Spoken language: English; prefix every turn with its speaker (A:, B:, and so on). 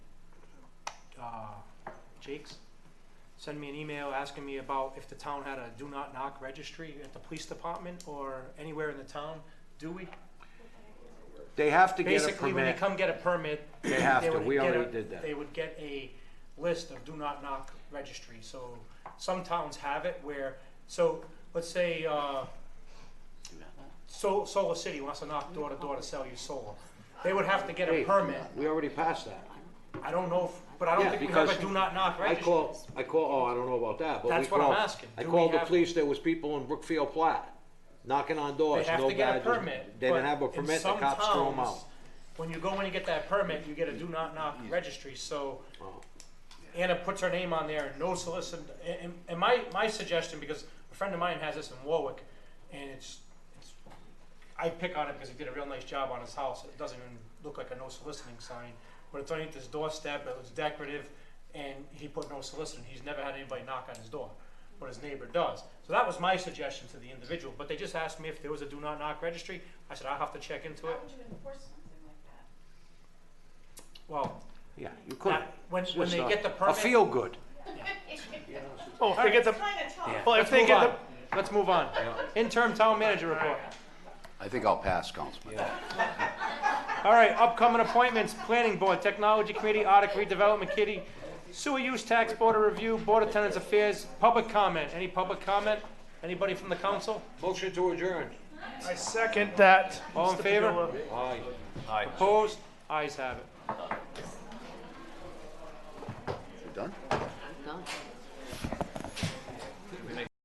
A: Jake's, send me an email asking me about if the town had a do not knock registry at the police department or anywhere in the town. Do we?
B: They have to get a
A: Basically, when they
B: permit.
A: come get a permit.
B: They have to.
A: would
B: We
A: get a-
B: already did that.
A: They would get a list of do not knock registry, so some towns have it where, so, let's say, uh, Sol- Solar City wants to knock door to door to sell you solar. They would have to get a
B: Hey,
A: permit.
B: We already passed that.
A: I don't know, if- but I don't
B: Yeah,
A: think we have a
B: because
A: do not knock
B: I
A: registry.
B: call, I call, oh, I don't know about that, but we
A: That's what I'm
B: called-
A: asking.
B: I
A: Do we
B: called the
A: have-
B: police, there was people in Brookfield Platt knocking on doors,
A: They have
B: no
A: to get a
B: badges.
A: permit.
B: They didn't
A: but
B: have a
A: in
B: permit, the
A: some
B: cops threw them
A: towns,
B: out.
A: When you go in and get that permit, you get a do not knock registry, so
B: Oh.
A: Anna puts her name on there, no solicit, and, and my, my suggestion, because a friend of mine has this in Warwick, and it's, it's, I pick on it because he did a real nice job on his house, it doesn't even look like a no soliciting sign, but it's underneath his doorstep, it was decorative, and he put no soliciting, he's never had anybody knock on his door, but his neighbor does. So that was my suggestion to the individual, but they just asked me if there was a do not knock registry, I said, I'll have to check into
C: How
A: it,
C: would you enforce something like that?
A: well,
B: Yeah, you couldn't.
A: that, when,
B: It's
A: when
B: just
A: they
B: a-
A: get the
B: A
A: permit.
B: feel good.
D: Oh, if they get the,
C: It's kind of tough.
D: well, if
A: Let's
D: they
A: move
D: get
A: on.
D: the,
A: Let's move on. Interim town manager report.
E: I think I'll pass, Councilman.
A: All right, upcoming appointments, planning board, technology committee, Arctic redevelopment kitty, sewer use tax board of review, board of tenants affairs, public comment. Any public comment? Anybody from the council?
B: Motion to adjourn.
D: I second that.
A: All in
D: Mr.
A: favor?
D: Padilla.
B: Aye.
A: Opposed? Eyes have it.